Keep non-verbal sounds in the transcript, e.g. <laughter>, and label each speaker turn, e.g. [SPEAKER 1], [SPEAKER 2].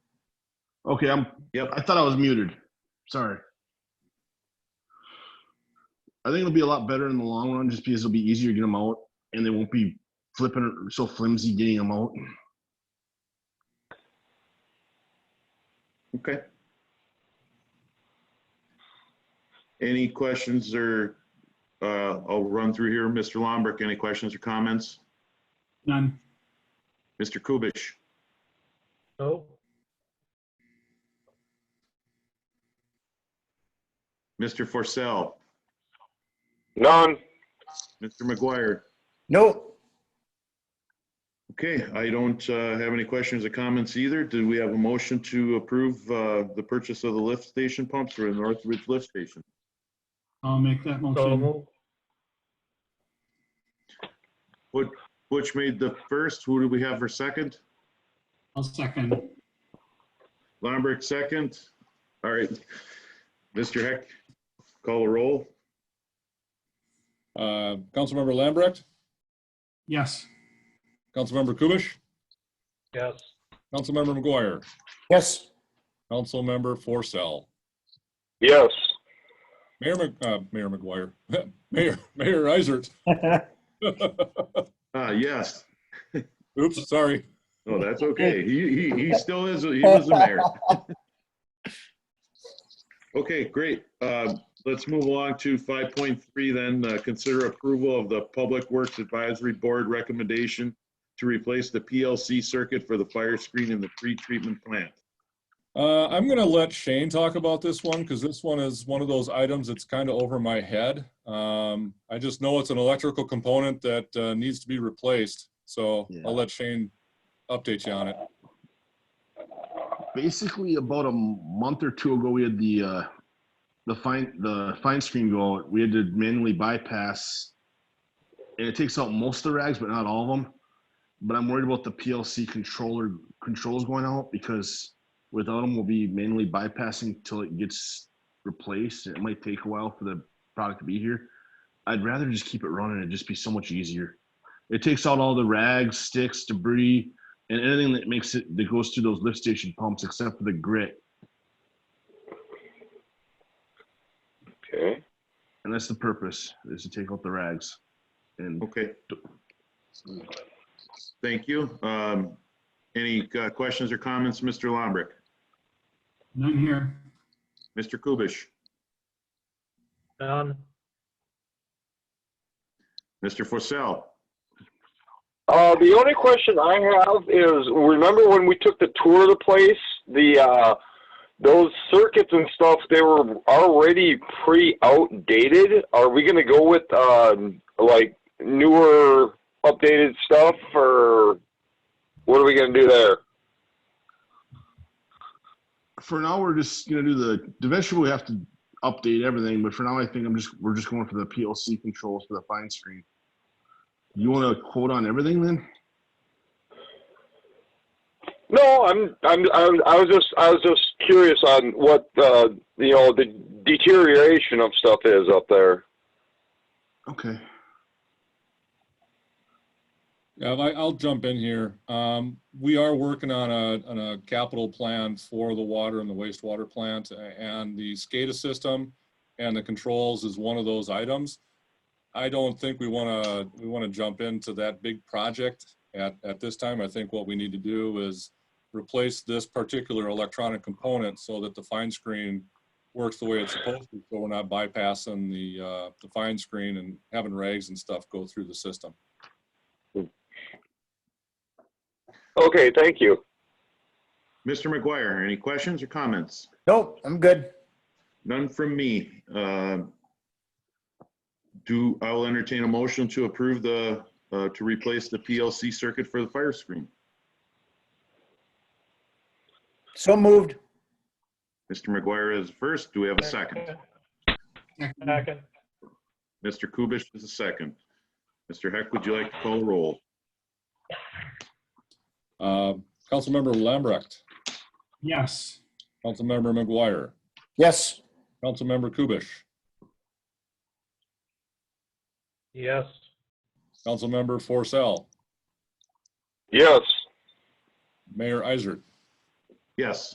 [SPEAKER 1] Okay, I'm, yep, I thought I was muted. Sorry. I think it'll be a lot better in the long run just because it'll be easier to get them out and they won't be flipping or so flimsy getting them out.
[SPEAKER 2] Okay. Any questions or, uh, I'll run through here. Mr. Lombrick, any questions or comments?
[SPEAKER 3] None.
[SPEAKER 2] Mr. Kubish,
[SPEAKER 4] No,
[SPEAKER 2] Mr. Forcell,
[SPEAKER 5] None.
[SPEAKER 2] Mr. McGuire.
[SPEAKER 5] Nope.
[SPEAKER 2] Okay, I don't uh, have any questions or comments either. Do we have a motion to approve uh, the purchase of the lift station pumps for the Northridge Lift Station?
[SPEAKER 3] I'll make that
[SPEAKER 4] so
[SPEAKER 3] motion.
[SPEAKER 4] moved.
[SPEAKER 2] Which made the first, who do we have for second?
[SPEAKER 3] I'll second.
[SPEAKER 2] Lombrick second. All right. Mr. Heck, call a roll.
[SPEAKER 6] Uh, Councilmember Lambrecht,
[SPEAKER 3] Yes.
[SPEAKER 6] Councilmember Kubish,
[SPEAKER 4] Yes,
[SPEAKER 6] Councilmember McGuire,
[SPEAKER 5] Yes.
[SPEAKER 6] Councilmember Forcell.
[SPEAKER 5] Yes.
[SPEAKER 6] Mayor, Mc- uh, Mayor McGuire, <laughs> Mayor, Mayor Isert.
[SPEAKER 2] Ah, yes.
[SPEAKER 6] Oops, sorry.
[SPEAKER 2] Oh, that's okay. He, he, he still is, he was the mayor. <laughs> Okay, great. Uh, Let's move along to 5.3 then, uh, consider approval of the Public Works Advisory Board recommendation to replace the PLC circuit for the fire screen in the pre-treatment plant.
[SPEAKER 6] Uh, I'm gonna let Shane talk about this one, because this one is one of those items that's kind of over my head. Um, I just know it's an electrical component that, uh, needs to be replaced, so
[SPEAKER 1] Yeah.
[SPEAKER 6] I'll let Shane update you on it.
[SPEAKER 1] Basically, about a month or two ago, we had the, uh, the fine, the fine screen go out. We had to manually bypass. And it takes out most of the rags, but not all of them. But I'm worried about the PLC controller, controls going out because without them, we'll be manually bypassing till it gets replaced. It might take a while for the product to be here. I'd rather just keep it running. It'd just be so much easier. It takes out all the rags, sticks, debris, and anything that makes it, that goes through those lift station pumps except for the grit.
[SPEAKER 5] Okay.
[SPEAKER 1] And that's the purpose, is to take out the rags. And
[SPEAKER 2] Okay. Thank you. Um, Any uh, questions or comments, Mr. Lombrick?
[SPEAKER 3] None here.
[SPEAKER 2] Mr. Kubish?
[SPEAKER 4] none,
[SPEAKER 2] Mr. Forcell?
[SPEAKER 5] Uh, the only question I have is, remember when we took the tour of the place, the, uh, those circuits and stuff, they were already pre-outdated. Are we gonna go with, um, like newer, updated stuff or what are we gonna do there?
[SPEAKER 1] for now, we're just gonna do the, eventually we have to update everything, but for now, I think I'm just, we're just going for the PLC controls for the fine screen. You wanna quote on everything then?
[SPEAKER 5] No, I'm, I'm, I'm, I was just, I was just curious on what, uh, you know, the deterioration of stuff is up there.
[SPEAKER 1] Okay.
[SPEAKER 6] Yeah, I- I'll jump in here. Um, We are working on a, on a capital plan for the water and the wastewater plant and the SCADA system and the controls is one of those items. I don't think we want to, we want to jump into that big project at, at this time. I think what we need to do is replace this particular electronic component so that the fine screen works the way it's supposed to, so we're not bypassing the, uh, the fine screen and having rags and stuff go through the system.
[SPEAKER 5] Okay, thank you.
[SPEAKER 2] Mr. McGuire, any questions or comments?
[SPEAKER 7] Nope, I'm good.
[SPEAKER 2] None from me. Uh, Do, I will entertain a motion to approve the, uh, to replace the PLC circuit for the fire screen.
[SPEAKER 7] So moved.
[SPEAKER 2] Mr. McGuire is first. Do we have a second?
[SPEAKER 3] Second.
[SPEAKER 4] second,
[SPEAKER 2] Mr. Kubish is the second. Mr. Heck, would you like to call roll?
[SPEAKER 6] Uh, Councilmember Lambrecht,
[SPEAKER 3] Yes.
[SPEAKER 6] Councilmember McGuire,
[SPEAKER 7] Yes.
[SPEAKER 6] Councilmember Kubish,
[SPEAKER 4] yes,
[SPEAKER 6] Councilmember Forcell,
[SPEAKER 5] Yes.
[SPEAKER 6] Mayor Isert.
[SPEAKER 2] Yes.